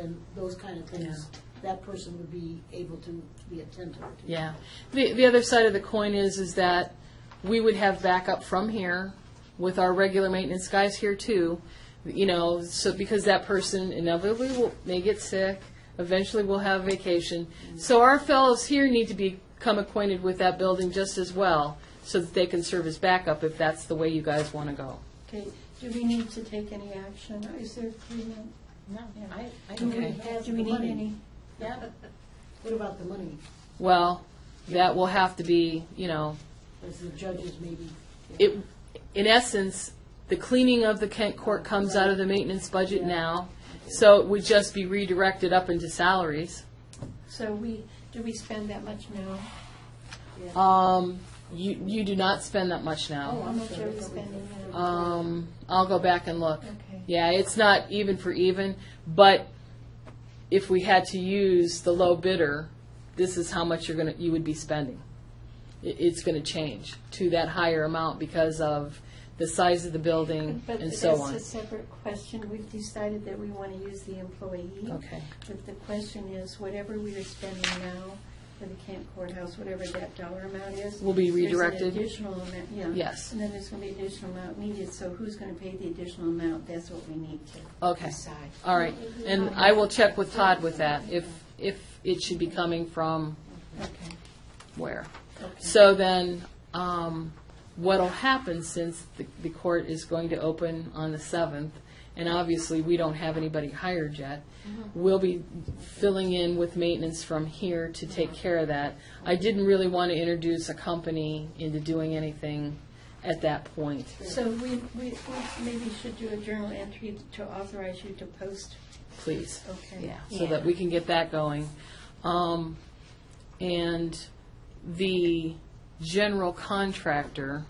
and those kind of things, that person would be able to be attentive to. Yeah. The, the other side of the coin is, is that we would have backup from here with our regular maintenance guys here too. You know, so because that person inevitably will, may get sick, eventually will have vacation. So our fellows here need to become acquainted with that building just as well, so that they can serve as backup if that's the way you guys want to go. Okay, do we need to take any action? Is there agreement? No, I, I Do don't we Okay. have, do we need any? yeah. What about the money? Well, that will have to be, you know, As the judges maybe, it, in essence, the cleaning of the Kent Court comes out of the maintenance budget now, so it would just be redirected up into salaries. So we, do we spend that much now? Um, you, you do not spend that much How now. much are we spending now? Um, I'll go back and look. Okay. Yeah, it's not even for even, but if we had to use the low bidder, this is how much you're gonna, you would be spending. It, it's gonna change to that higher amount because of the size of the building But and that's so on. a separate question. We've decided that we want to use the employee. Okay. But the question is, whatever we are spending now for the Camp Courthouse, whatever that dollar amount is. Will be there's an redirected? additional amount, yeah. Yes. And then there's going to be additional amount needed, so who's going to pay the additional amount? That's what we need to Okay. decide. All right, and I will check with Todd with that, if, if it should be coming from Okay. where. Okay. So then, um, what'll happen since the, the court is going to open on the seventh, and obviously, we don't have anybody hired yet, we'll be filling in with maintenance from here to take care of that. I didn't really want to introduce a company into doing anything at that point. So we, we we maybe should do a journal entry to authorize you to post. please. Okay. Yeah, so that we can get that going. Um, and the general contractor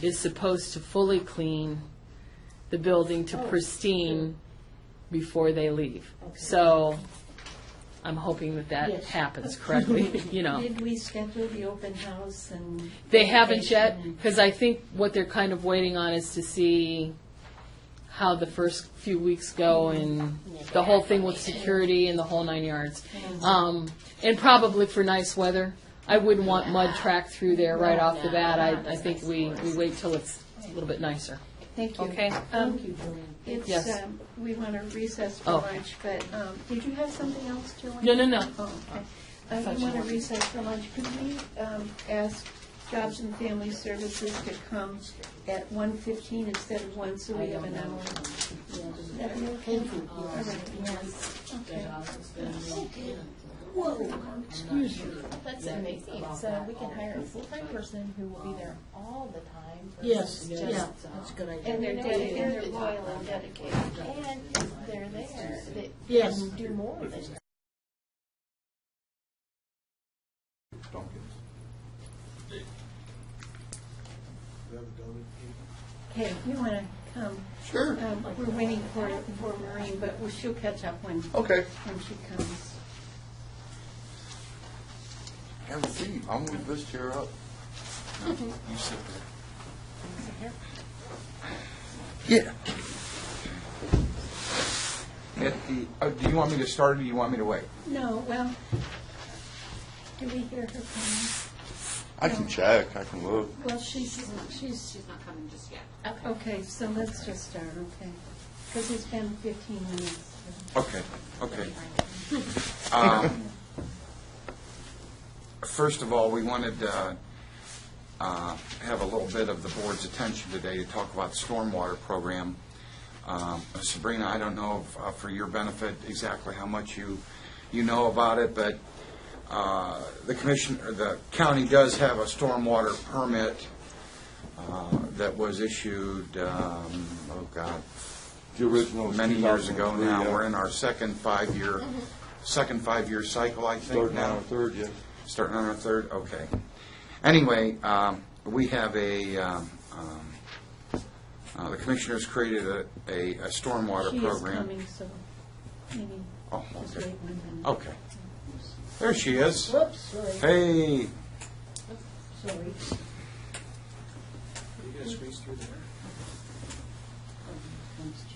is supposed to fully clean the building to pristine before they leave. So I'm hoping that that Yes. happens correctly, you know. Did we schedule the open house and? They haven't yet, vacation? because I think what they're kind of waiting on is to see how the first few weeks go and the whole thing with security and the whole nine yards. Um, and probably for nice weather. I wouldn't want mud tracked through there right off the bat. I, I think we, we wait till it's a little bit nicer. Thank you. Okay. Um, thank you, Joanne. It's, Yes. um, we want to recess for Oh. lunch, but, um, did you have something else, Joanne? No, no, no. Oh, okay. Uh, We want to recess for lunch. Could we um, ask Jobs and Family Services to come at 1:15 instead of 1, so we have an hour? That'd be okay? Thank you. All right, yes, okay. That's amazing. So we can hire a full-time person who will be there all the time. Yes, versus just- yeah, that's a good idea. And they're You know, dedicated, and and they're loyal and dedicated. And if they're there, that Yes. can do more than. Hey, if you want to come? Sure. Um, We're waiting for, for Maureen, but we- she'll catch up when, Okay. when she comes. Have a seat. I'm gonna move this chair up. You sit there. Yeah. At the, uh, do you want me to start or do you want me to wait? No, well, do we hear her coming? I can check. I can look. Well, she's, she's, She's not coming just yet. okay, so let's just start, okay? Because it's been 15 minutes. Okay, okay. Um, First of all, we wanted to uh, have a little bit of the board's attention today to talk about the stormwater program. Um, Sabrina, I don't know if, uh, for your benefit exactly how much you, you know about it, but uh, the commission, or the county does have a stormwater permit uh, that was issued, um, oh God, The original was many years ago 2003, now. yeah. We're in our second five-year, Mm-hmm. second five-year cycle, I think, Starting on now. our third, yes. Starting on our third, okay. Anyway, um, we have a, um, um, uh, the commissioners created a, a a stormwater She is program. coming, so maybe Oh, just okay. wait one minute. Okay. Oh. There she is. Whoops, sorry, Hey, sorry. You gonna squeeze through there? Comes